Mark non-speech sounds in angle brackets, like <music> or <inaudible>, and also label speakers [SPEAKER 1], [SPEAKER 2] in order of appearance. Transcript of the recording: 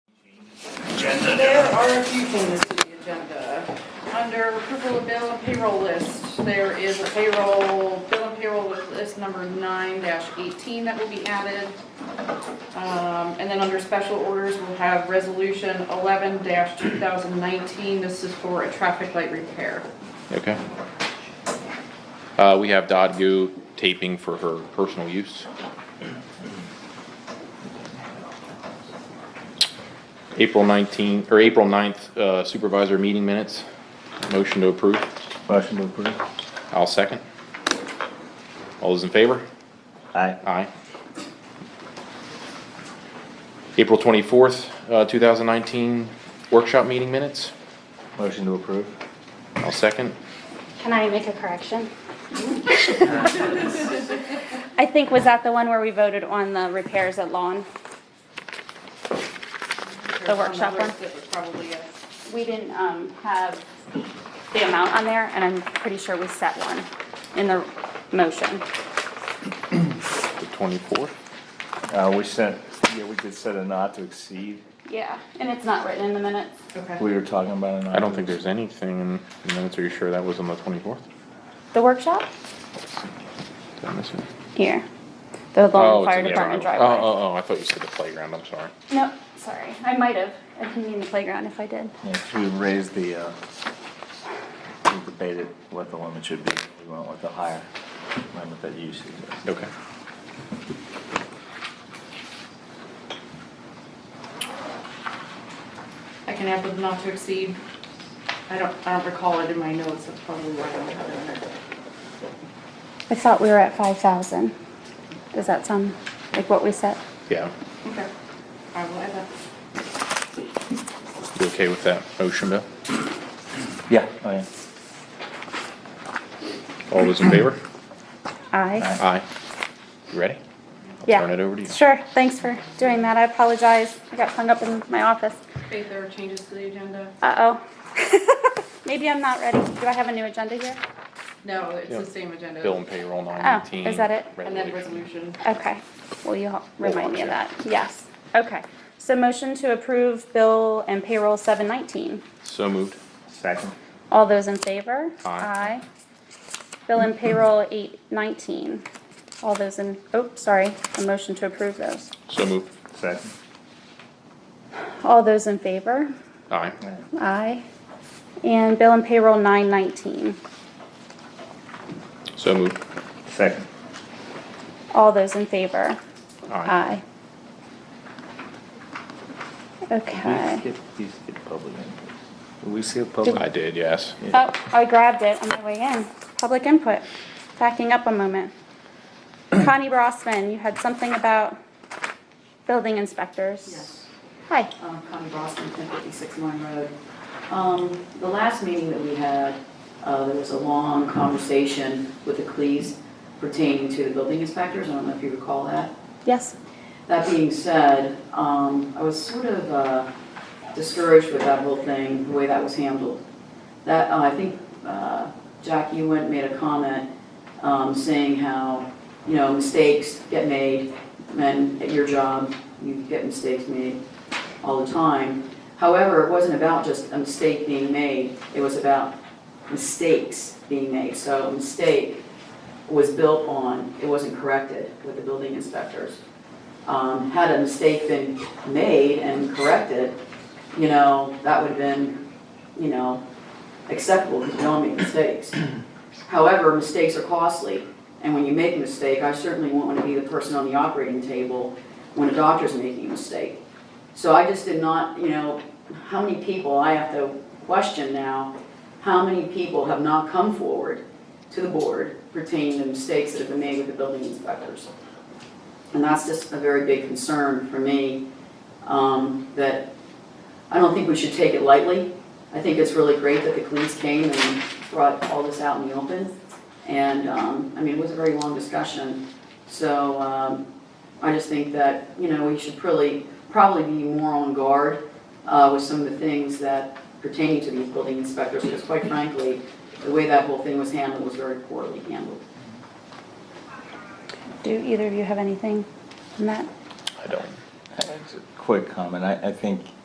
[SPEAKER 1] There are a few things to the agenda. Under approval of bill and payroll list, there is a payroll, bill and payroll list number nine eighteen that will be added. Um, and then under special orders, we'll have resolution eleven two thousand nineteen. This is for a traffic light repair.
[SPEAKER 2] Okay. Uh, we have Dodd Goo taping for her personal use. April nineteenth or April 9th uh, supervisor meeting minutes, motion to approve,
[SPEAKER 3] Motion to approve.
[SPEAKER 2] I'll second. All those in favor?
[SPEAKER 3] Aye.
[SPEAKER 2] Aye. April twenty-fourth, uh, two thousand nineteen workshop meeting minutes,
[SPEAKER 3] Motion to approve.
[SPEAKER 2] I'll second.
[SPEAKER 4] Can I make a <laughs> correction? I think, was that the one where we voted on the repairs at lawn? The workshop one?
[SPEAKER 1] That was probably it.
[SPEAKER 4] We didn't, um, have the amount on there, and I'm pretty sure we set one in the motion.
[SPEAKER 2] The twenty-fourth,
[SPEAKER 3] Uh, we sent, yeah, we did set a not to exceed.
[SPEAKER 4] Yeah, and it's not written in the minutes.
[SPEAKER 1] Okay.
[SPEAKER 3] We were talking about a not.
[SPEAKER 2] I don't
[SPEAKER 3] to
[SPEAKER 2] think there's anything in the minutes, are you sure that was on the twenty-fourth?
[SPEAKER 4] The workshop?
[SPEAKER 2] Did I miss it?
[SPEAKER 4] Here. The
[SPEAKER 2] Oh, it's
[SPEAKER 4] lawn
[SPEAKER 2] in
[SPEAKER 4] fire
[SPEAKER 2] the
[SPEAKER 4] department
[SPEAKER 2] other one.
[SPEAKER 4] driveway.
[SPEAKER 2] Oh, oh, oh, I thought you said the playground, I'm sorry.
[SPEAKER 4] No, sorry, I might have. I didn't mean the playground if I did.
[SPEAKER 3] Yeah, 'cause we raised the, uh, we debated what the limit should be. We went with the higher limit that you suggested.
[SPEAKER 2] Okay.
[SPEAKER 1] I can add the not to exceed. I don't, I don't recall it in my notes, that's probably why I don't have it in there.
[SPEAKER 4] I thought we were at five thousand. Does that sound like what we set?
[SPEAKER 2] Yeah,
[SPEAKER 1] Okay, I will add that.
[SPEAKER 2] you okay with that motion, Bill?
[SPEAKER 3] Yeah, oh yeah.
[SPEAKER 2] All those in favor?
[SPEAKER 4] Aye.
[SPEAKER 3] Aye.
[SPEAKER 2] Aye. You ready?
[SPEAKER 4] Yeah.
[SPEAKER 2] Turn it over to you.
[SPEAKER 4] Sure, thanks for doing that. I apologize. I got hung up in my office.
[SPEAKER 1] Faith, there are changes to the agenda?
[SPEAKER 4] Uh-oh. <laughs> Maybe I'm not ready. Do I have a new agenda here?
[SPEAKER 1] No, it's
[SPEAKER 2] Yeah.
[SPEAKER 1] the same agenda.
[SPEAKER 2] Bill and payroll
[SPEAKER 4] Oh,
[SPEAKER 2] nine eighteen.
[SPEAKER 4] is that it?
[SPEAKER 1] And then resolution.
[SPEAKER 4] Okay, will you help remind me of
[SPEAKER 2] watch
[SPEAKER 4] that? Yes, okay. So motion to approve bill and payroll seven nineteen.
[SPEAKER 2] So moved.
[SPEAKER 3] Second.
[SPEAKER 4] All those in favor?
[SPEAKER 2] Aye.
[SPEAKER 4] Bill and payroll eight nineteen. All those in, oh, sorry, a motion to approve those.
[SPEAKER 2] So moved.
[SPEAKER 3] Second.
[SPEAKER 4] All those in favor?
[SPEAKER 2] Aye.
[SPEAKER 3] Yeah.
[SPEAKER 4] Aye. And bill and payroll nine nineteen.
[SPEAKER 2] So moved.
[SPEAKER 3] Second.
[SPEAKER 4] All those in favor?
[SPEAKER 2] Aye.
[SPEAKER 4] Aye.
[SPEAKER 3] We
[SPEAKER 4] Okay.
[SPEAKER 3] skipped, we skipped public input. Did we skip
[SPEAKER 4] Uh,
[SPEAKER 3] public?
[SPEAKER 2] I did, yes.
[SPEAKER 4] Oh, I grabbed it on my way in. Public input. Backing up a moment. Connie Brossman, you had something about building inspectors.
[SPEAKER 5] Yes.
[SPEAKER 4] Hi.
[SPEAKER 5] um, Connie Boston, 1056 Lime Road. Um, The last meeting that we had, uh, there was a long conversation with the Cleese pertaining to the building inspectors. I don't know if you recall that.
[SPEAKER 4] Yes.
[SPEAKER 5] That being said, um, I was sort of uh, discouraged with that whole thing, the way that was handled. That, uh, I think, uh, Jack, you went, and made a comment, um, saying how, you know, mistakes get made, and at your job, you get mistakes made all the time. However, it wasn't about just a mistake being made, it was about mistakes being made. So a mistake was built on, it wasn't corrected with the building inspectors um, had a mistake been made and corrected, you know, that would have been, you know, acceptable, because we all make mistakes. However, mistakes are costly, and when you make a mistake, I certainly won't want to be the person on the operating table when a doctor's making a mistake. So I just did not, you know, how many people, I have to question now, how many people have not come forward to the board pertaining to mistakes that have been made with the building inspectors? And that's just a very big concern for me, um, that I don't think we should take it lightly. I think it's really great that the police came and brought all this out in the open. And, um, I mean, it was a very long discussion. So, um, I just think that, you know, we should probably, probably be more on guard, uh, with some of the things that pertaining to these building inspectors. Because quite frankly, the way that whole thing was handled was very poorly handled.
[SPEAKER 4] Do either of you have anything on that?
[SPEAKER 2] I don't.
[SPEAKER 3] That's a Quick comment. I, I think